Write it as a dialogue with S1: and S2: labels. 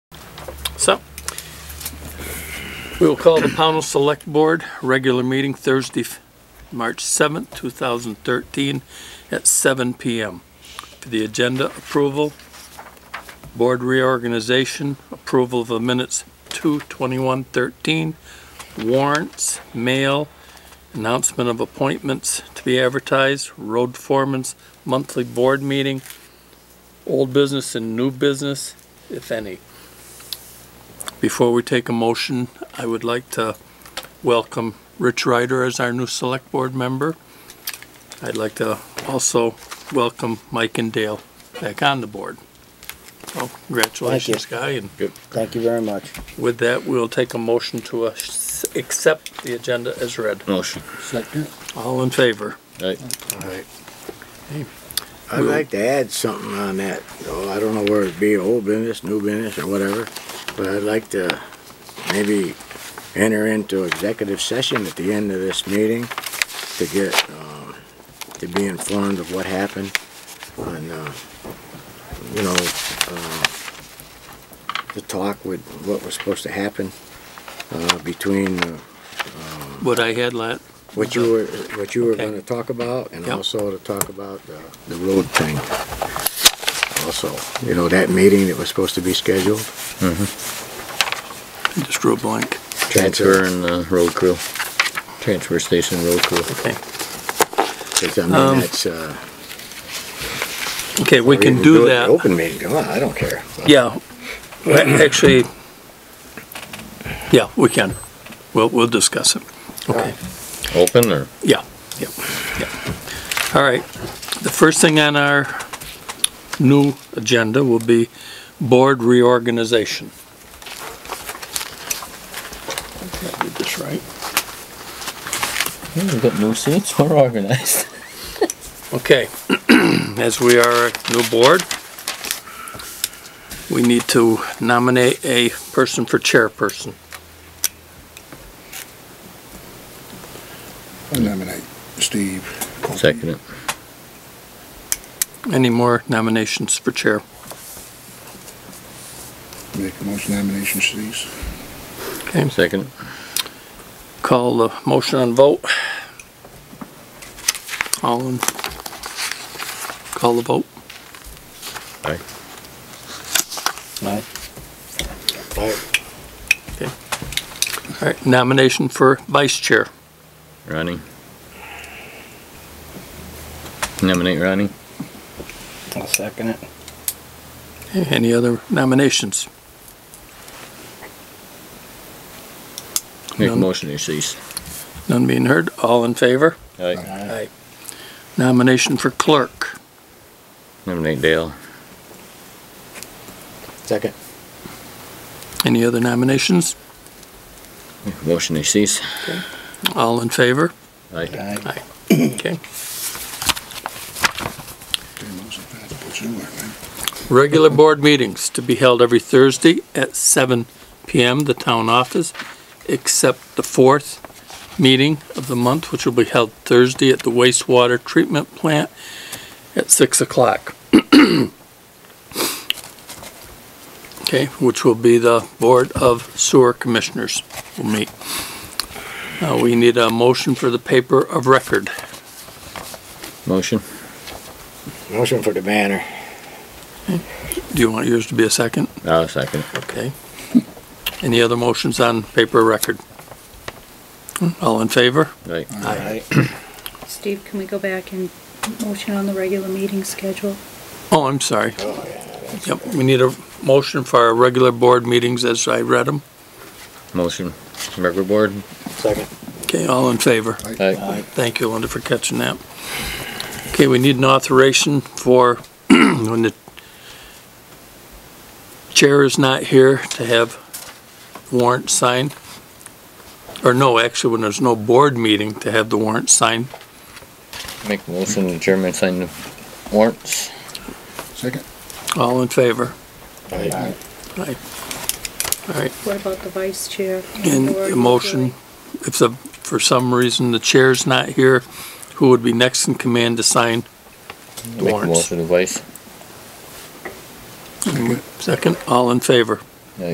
S1: So, we will call the Pownell Select Board, regular meeting Thursday, F- March 7th, 2013, at 7 PM. For the agenda approval, board reorganization, approval of the minutes 2/21/13, warrants, mail, announcement of appointments to be advertised, road foreman's monthly board meeting, old business and new business, if any. Before we take a motion, I would like to welcome Rich Ryder as our new select board member. I'd like to also welcome Mike and Dale back on the board. So congratulations, Guy, and
S2: Thank you very much.
S1: with that, we'll take a motion to uh, s- accept the agenda as read.
S3: Motion.
S2: Second.
S1: All in favor?
S3: Right.
S4: Alright. I'd like to add something on that, though, I don't know where it'd be, old business, new business, or whatever, but I'd like to maybe enter into executive session at the end of this meeting to get, um, to be informed of what happened on, uh, you know, uh, the talk with what was supposed to happen, uh, between, uh,
S1: What I had last,
S4: what you were, what you were
S1: Okay.
S4: gonna talk about, and
S1: Yep.
S4: also to talk about the, the road thing. Also, you know, that meeting that was supposed to be scheduled.
S1: just drew a blank.
S3: Transfer and uh, road crew. Transfer station road crew.
S1: Okay.
S4: Cause I mean, that's, uh.
S1: Okay, Um, we
S4: even
S1: can do
S4: it
S1: that.
S4: Open meeting, come on, I don't care.
S1: Yeah, Well, actually, yeah, we can. We'll, we'll discuss it. Okay,
S3: Open or?
S1: yeah, yeah, yeah. All right, the first thing on our new agenda will be board reorganization. Did I read this right?
S3: We've got new seats. We're organized.
S1: Okay, as we are a new board, we need to nominate a person for chairperson.
S5: I nominate Steve. Colby.
S3: Second it.
S1: Any more nominations for chair?
S5: Make the most nominations to these.
S1: Okay,
S3: Second it.
S1: call the motion and vote. All in. Call the vote.
S3: Aye.
S2: Aye.
S1: All right, nomination for vice chair.
S3: Ronnie. Nominate Ronnie.
S2: I'll second it.
S1: Any other nominations?
S3: Make a
S1: None.
S3: motion to cease.
S1: None being heard, all in favor?
S3: Aye.
S1: Aye. Nomination for clerk.
S3: Nominate Dale.
S4: Second.
S1: Any other nominations?
S3: Make a Motion to cease.
S1: All in favor?
S3: Aye.
S2: Aye.
S5: Damn,
S1: Okay,
S5: I was in fact, put you in there, man.
S1: regular board meetings to be held every Thursday at seven PM, the town office, except the fourth meeting of the month, which will be held Thursday at the wastewater treatment plant at six o'clock. Okay, which will be the Board of Sewer Commissioners will meet. Uh, we need a motion for the paper of record.
S3: Motion.
S4: Motion for the banner.
S1: Do you want yours to be a second?
S3: I'll second it.
S1: Okay. Any other motions on paper record? Hmm, All in favor?
S3: Aye.
S2: Aye.
S6: Steve, can we go back and motion on the regular meeting schedule?
S1: Oh, I'm sorry. Yep, we need a motion for our regular board meetings as I read them.
S3: Motion. Record board.
S4: Second.
S1: Okay, all in favor?
S3: Aye.
S1: Thank you, Linda, for catching that. Okay, we need an authorization for when the chair is not here to have warrant signed. Or no, actually, when there's no board meeting, to have the warrant signed.
S3: Make a motion to chairman sign the warrants.
S5: Second.
S1: All in favor?
S4: Aye.
S1: Aye. All right,
S6: What about the vice chair?
S1: and a motion, if the, for some reason the chair's not here, who would be next in command to sign?
S3: Make a
S1: warrants.
S3: motion to vice.
S1: Second, all in favor?